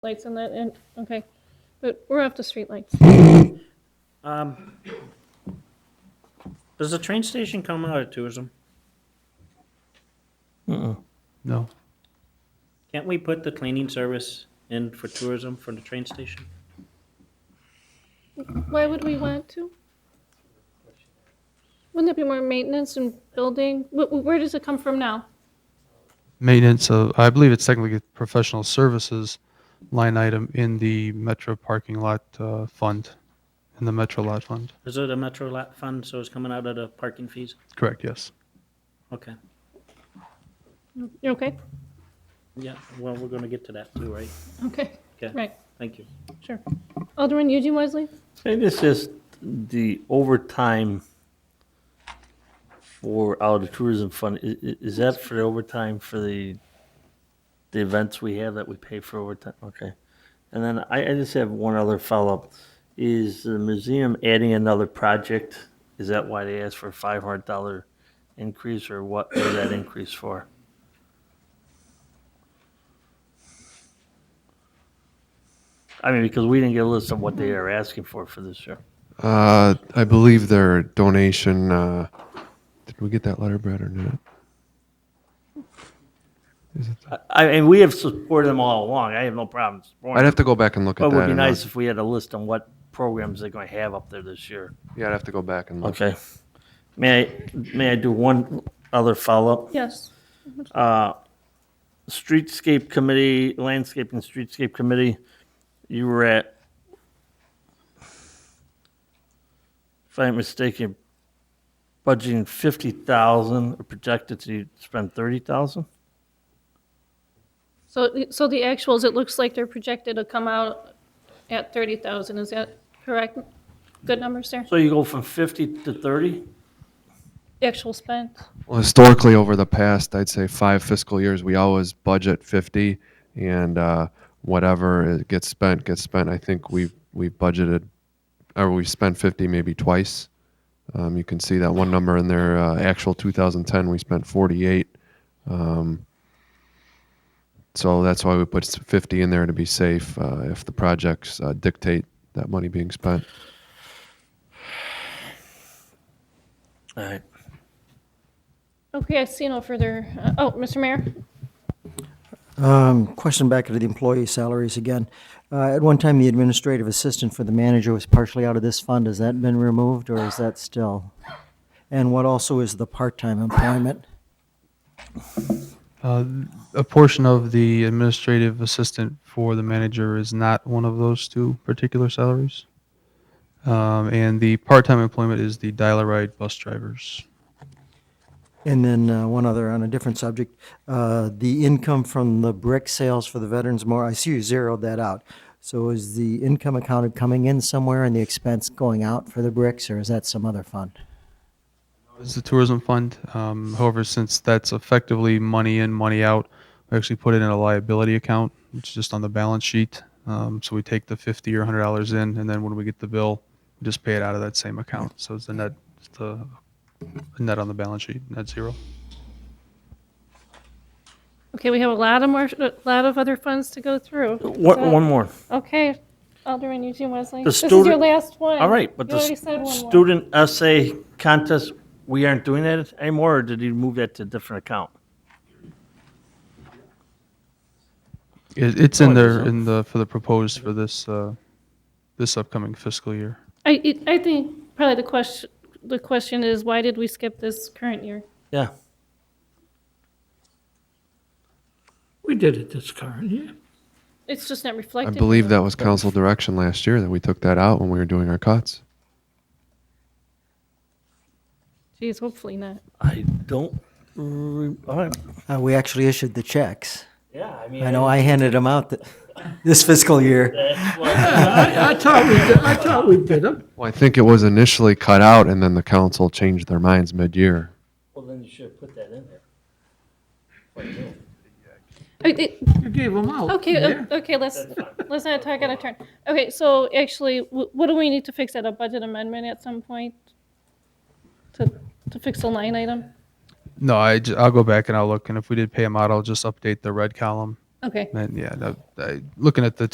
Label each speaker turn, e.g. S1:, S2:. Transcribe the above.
S1: lights on that end? Okay, but we're off the streetlights.
S2: Um, does the train station come out of tourism?
S3: No.
S2: Can't we put the cleaning service in for tourism for the train station?
S1: Why would we want to? Wouldn't it be more maintenance and building? Wh- wh- Where does it come from now?
S3: Maintenance of, I believe it's technically a professional services line item in the Metro parking lot uh, fund, in the Metro lot fund.
S2: Is it a Metro lot fund, so it's coming out of the parking fees?
S3: Correct, yes.
S2: Okay,
S1: You okay?
S2: yeah, well, we're gonna get to that too, right?
S1: Okay,
S2: Okay,
S1: right,
S2: thank you.
S1: sure. Alderman Eugene Wesley?
S4: And it's just the overtime for out of tourism fund, i- i- is that for the overtime for the, the events we have that we pay for overtime? Okay. And then I, I just have one other follow-up. Is the museum adding another project? Is that why they asked for a five hundred dollar increase or what is that increase for? I mean, because we didn't get a list of what they are asking for for this year.
S5: Uh, I believe their donation. Uh, did we get that letter, Brad, or not?
S4: I and we have supported them all along. I have no problem supporting.
S5: I'd
S4: them.
S5: have to go back and look at
S4: But it
S5: that.
S4: would be
S5: and, uh,
S4: nice if we had a list on what programs they're going to have up there this year.
S5: Yeah, I'd have to go back and look.
S4: Okay. May I, may I do one other follow-up?
S1: Yes.
S4: Streetscape Committee, Landscape and Streetscape Committee, you were at, if I'm mistaken, budgeting 50,000 or projected to spend 30,000?
S1: So, so the actuals, it looks like they're projected to come out at 30,000, is that correct? Good numbers there?
S4: So you go from 50 to 30?
S1: Actual spend?
S5: Well, historically, over the past, I'd say five fiscal years, we always budget fifty, and uh, whatever it gets spent gets spent. I think we've we've budgeted, or we've spent fifty maybe twice. Um, you can see that one number in there. Uh, actual 2010, we spent 48. Um, so that's why we put s- 50 in there to be safe uh, if the projects uh, dictate that money being spent.
S4: All right.
S1: Okay, I see no further, uh, oh, Mr. Mayor?
S6: Um, Question back to the employee salaries again. Uh, At one time, the administrative assistant for the manager was partially out of this fund. Has that been removed, or is that still? And what also is the part-time employment?
S3: Uh, A portion of the administrative assistant for the manager is not one of those two particular salaries. Um, And the part-time employment is the dial-a-ride bus drivers.
S6: And then uh, one other on a different subject, uh, the income from the brick sales for the Veterans Memorial, I see you zeroed that out. So is the income accounted coming in somewhere and the expense going out for the bricks, or is that some other fund?
S3: It's the tourism fund. Um, however, since that's effectively money in, money out, we actually put it in a liability account, which is just on the balance sheet. Um, so we take the fifty or hundred dollars in, and then when we get the bill, we just pay it out of that same account. So it's the net, it's the net on the balance sheet, net zero.
S1: Okay, we have a lot of more, a lot of other funds to go through. So-
S4: One, one more.
S1: Okay, Alderman Eugene Wesley.
S4: The
S1: This is your
S4: student-
S1: last one.
S4: All right, but
S1: You
S4: the
S1: already said
S4: stu-
S1: one more.
S4: student essay contest, we aren't doing that anymore, or did you move that to a different account?
S3: It, it's in
S4: Oh, it is,
S3: there
S4: huh?
S3: in the for the proposed for this uh, this upcoming fiscal year.
S1: I, it- I think probably the question, the question is, why did we skip this current year?
S4: Yeah.
S7: We did it this current year.
S1: It's just not
S5: I
S1: reflected.
S5: believe
S1: here.
S5: that was council direction last year that we took that out when we were doing our cuts.
S1: Geez, hopefully not.
S4: I don't, re- all right.
S6: Uh, We actually issued the checks.
S4: Yeah, I mean.
S6: I know I handed them out th- this fiscal year.
S7: I, I thought we did, I thought we did them.
S5: Well, I think it was initially cut out, and then the council changed their minds mid-year.
S4: Well, then you should have put that in there.
S1: I- it-
S7: You gave them out.
S1: Okay,
S7: yeah?
S1: o- okay, let's, let's not talk out of turn. Okay, so actually, wh- what do we need to fix at a budget amendment at some point? To, to fix a line item?
S3: No, I j- I'll go back and I'll look, and if we did pay them out, I'll just update the red column.
S1: Okay.
S3: And yeah, that, I, looking at the